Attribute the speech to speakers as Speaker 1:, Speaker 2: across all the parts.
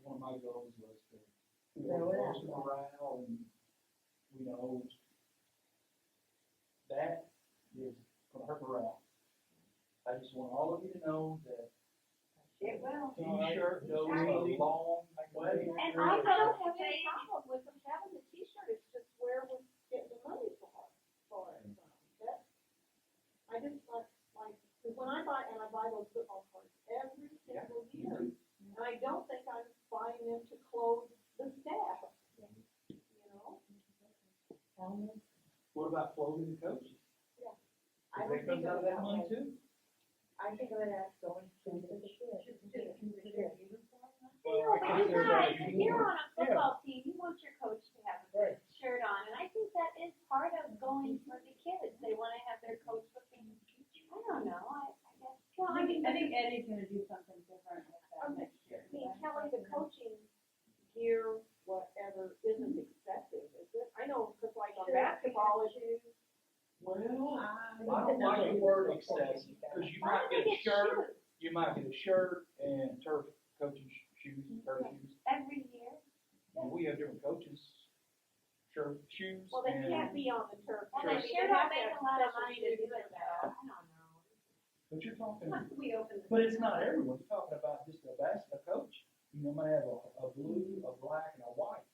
Speaker 1: goals was to
Speaker 2: Throw it out
Speaker 1: raise morale and, you know, that is gonna hurt morale. I just want all of you to know that
Speaker 2: It will.
Speaker 1: T-shirt goes a long way.
Speaker 3: And I don't have any problem with them having the t-shirt, it's just where we get the money for, for it from, that's. I just like, like, 'cause when I buy, and I buy those football cards every
Speaker 1: Yeah.
Speaker 3: single year, and I don't think I'm buying them to clothe the staff, you know?
Speaker 1: What about clothing the coaches? They
Speaker 3: I would think
Speaker 1: comes out of
Speaker 3: of it
Speaker 1: that
Speaker 3: that way.
Speaker 1: money too?
Speaker 2: I think of it as going to the
Speaker 3: Just- just
Speaker 2: ship.
Speaker 3: consider it.
Speaker 1: Well,
Speaker 4: Well,
Speaker 1: I
Speaker 4: but
Speaker 1: think
Speaker 4: you
Speaker 1: there's
Speaker 4: guys,
Speaker 1: a-
Speaker 4: if you're on a football team, you want your coach to have a
Speaker 1: Right.
Speaker 4: shirt on, and I think that is part of going for the kids, they wanna have their coach looking, I don't know, I, I guess. Well, I mean, I think
Speaker 5: Eddie's gonna do something different with that next year.
Speaker 3: I mean, Kelly, the coaching gear, whatever, isn't excessive, is it? I know, cause like on
Speaker 4: Sure.
Speaker 3: basketball issues,
Speaker 1: Well, I don't like the word excessive, because you
Speaker 4: Why
Speaker 1: might
Speaker 4: don't they
Speaker 1: get a
Speaker 4: get
Speaker 1: shirt,
Speaker 4: shoes
Speaker 1: you might get a shirt and turf coaching sh- shoes, and turf shoes.
Speaker 4: every year?
Speaker 1: And we have different coaches, shirt, shoes,
Speaker 3: well, they can't
Speaker 1: and,
Speaker 3: be on the turf.
Speaker 4: Well,
Speaker 1: Sure.
Speaker 4: they
Speaker 3: I mean,
Speaker 4: sure
Speaker 3: have
Speaker 4: don't
Speaker 3: to
Speaker 4: make
Speaker 3: have
Speaker 4: a lot of
Speaker 3: special
Speaker 4: money to do
Speaker 3: shoes
Speaker 4: it
Speaker 3: for
Speaker 4: though, I
Speaker 3: that.
Speaker 4: don't know.
Speaker 1: but you're talking,
Speaker 4: Once we open the.
Speaker 1: but it's not everyone, you're talking about just a basketball coach. You know, might have a, a blue, a black, and a white.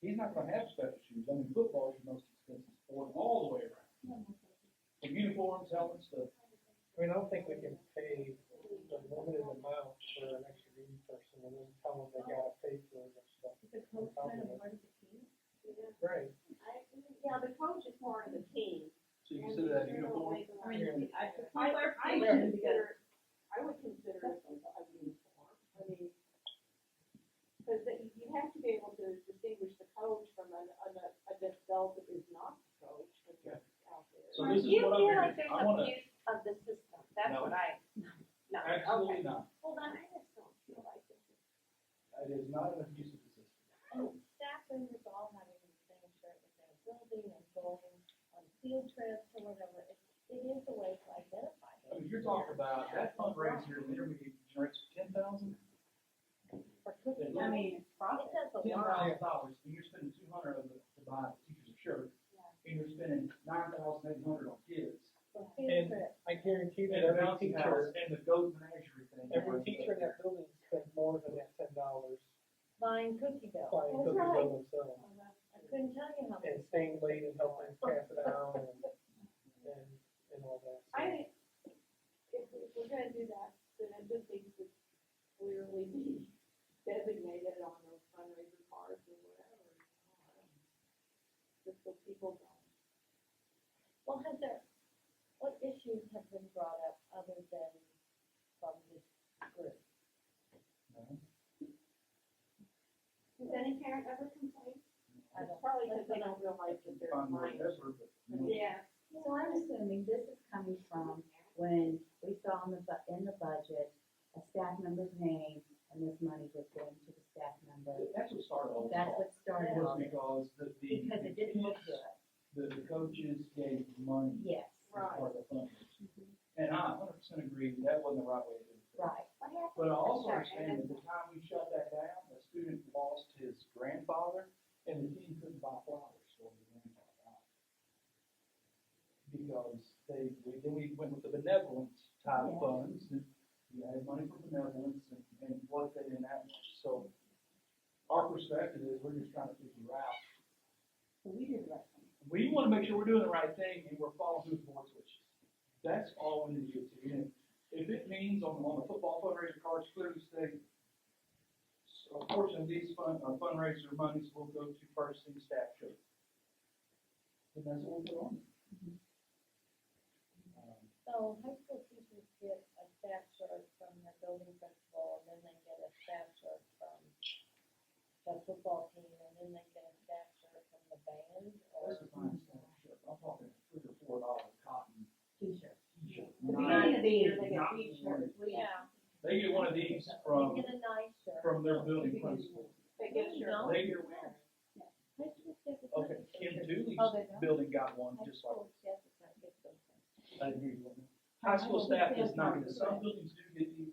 Speaker 1: He's not gonna have special shoes, I mean, football is the most expensive sport all the way around. The uniforms, helmets, the,
Speaker 6: I mean, I don't think we can pay the limited amount for an extra green person and then tell them they gotta pay for it and stuff.
Speaker 5: The coach kind of part of the team.
Speaker 3: Yeah.
Speaker 6: Right.
Speaker 3: I, yeah, the coach is more of the team.
Speaker 1: so you
Speaker 3: And
Speaker 1: consider that
Speaker 3: the
Speaker 1: uniform,
Speaker 3: general
Speaker 5: I mean, I,
Speaker 3: I, I would
Speaker 5: players together.
Speaker 3: consider, I would consider it a a uniform, I mean, cause that, you- you have to be able to distinguish the coach from a, a, a adult that is not the coach, but
Speaker 1: Yeah.
Speaker 3: just out there.
Speaker 1: So this is
Speaker 4: You
Speaker 1: what I'm
Speaker 4: feel
Speaker 1: hearing.
Speaker 4: like there's
Speaker 1: I wanna-
Speaker 4: abuse of the system, that's
Speaker 1: No.
Speaker 4: what I, no, okay.
Speaker 1: absolutely not.
Speaker 4: Well, then I just don't feel like this is
Speaker 1: It is not an abuse of the system.
Speaker 2: Staff members all having the same shirt with their building and going on field trips or whatever, it, it is a way to identify
Speaker 1: I
Speaker 2: them
Speaker 1: mean, you're talking about that fundraiser literally generates ten thousand,
Speaker 2: for cooking.
Speaker 1: I
Speaker 5: mean, it's
Speaker 2: It does a
Speaker 1: ten
Speaker 2: lot.
Speaker 1: thousand dollars, and you're spending two hundred of it to buy teachers a shirt, and you're spending nine thousand eight hundred on kids.
Speaker 2: For field trips.
Speaker 6: I guarantee
Speaker 1: And
Speaker 6: that
Speaker 1: the
Speaker 6: every
Speaker 1: bouncy house,
Speaker 6: teacher,
Speaker 1: and the goat menagerie thing.
Speaker 6: every teacher in that building spends more than that ten dollars
Speaker 2: Buying cookie dough.
Speaker 6: buying
Speaker 3: That's
Speaker 6: cookies
Speaker 3: right.
Speaker 6: on themselves.
Speaker 2: I couldn't tell you how many.
Speaker 6: And staying late and helping pass it out and, and, and all that. So,
Speaker 3: I, if, if we're gonna do that, then it just needs to clearly be designated on those fundraiser cards or whatever. you know, I don't know. Just so people know.
Speaker 2: Well, has there, what issues have been brought up other than from this group?
Speaker 4: Does any parent ever complain?
Speaker 2: I don't,
Speaker 3: Probably because they don't realize that they're
Speaker 1: Fund
Speaker 3: minors.
Speaker 1: whatever, but, you know,
Speaker 4: Yeah.
Speaker 7: So I'm assuming this is coming from when we saw in the, bu- in the budget, a staff member's name, and this money was going to the staff member.
Speaker 1: That's what started all this.
Speaker 7: That's
Speaker 1: all.
Speaker 7: what started
Speaker 1: Was
Speaker 7: all this,
Speaker 1: because the, the.
Speaker 7: because it didn't look good,
Speaker 1: The, the coaches gave money.
Speaker 7: yes,
Speaker 1: as part of the fundraiser. And I a hundred percent agree, that wasn't the right way to do it.
Speaker 7: right,
Speaker 4: What happened?
Speaker 1: But I also
Speaker 4: Sorry, I
Speaker 1: understand that the time we shut that down, the student lost his grandfather, and the team couldn't buy flowers for his grandfather. Because they, we, then we went with the benevolence type
Speaker 7: Yeah.
Speaker 1: funds, and you had money for benevolence and, and what they didn't have much, so. Our perspective is, we're just trying to figure out,
Speaker 5: So we did right.
Speaker 1: we wanna make sure we're doing the right thing and we're following through the board's wishes. That's all we need to do. And if it means on, on the football fundraiser cards, clearly state, a portion of these fund, uh, fundraiser monies will go to purchasing staff shirts. And that's what we'll put on. Um,
Speaker 2: so high school teachers get a staff shirt from their building principal, and then they get a staff shirt from the football team, and then they get a staff shirt from the band,
Speaker 1: oh,
Speaker 2: or?
Speaker 1: That's a fine staff shirt. I'm talking three or four dollar cotton
Speaker 7: t-shirts.
Speaker 1: t-shirt.
Speaker 5: The
Speaker 1: Not-
Speaker 5: beginning of the year, they
Speaker 1: not
Speaker 5: got t-shirts. We-
Speaker 2: Yeah.
Speaker 1: They get one of these
Speaker 2: They
Speaker 1: from,
Speaker 2: get a nice shirt.
Speaker 1: from their building principal.
Speaker 3: They get
Speaker 2: No, you
Speaker 3: your.
Speaker 2: don't.
Speaker 1: They get one.
Speaker 2: High school kids. it's
Speaker 1: Okay,
Speaker 2: not-
Speaker 1: Kim Dooley's
Speaker 2: Oh, they don't?
Speaker 1: building got one,
Speaker 2: High
Speaker 1: just like,
Speaker 2: school kids, it's not good for them.
Speaker 1: I agree with that. High school staff is not, gonna- some buildings do get these,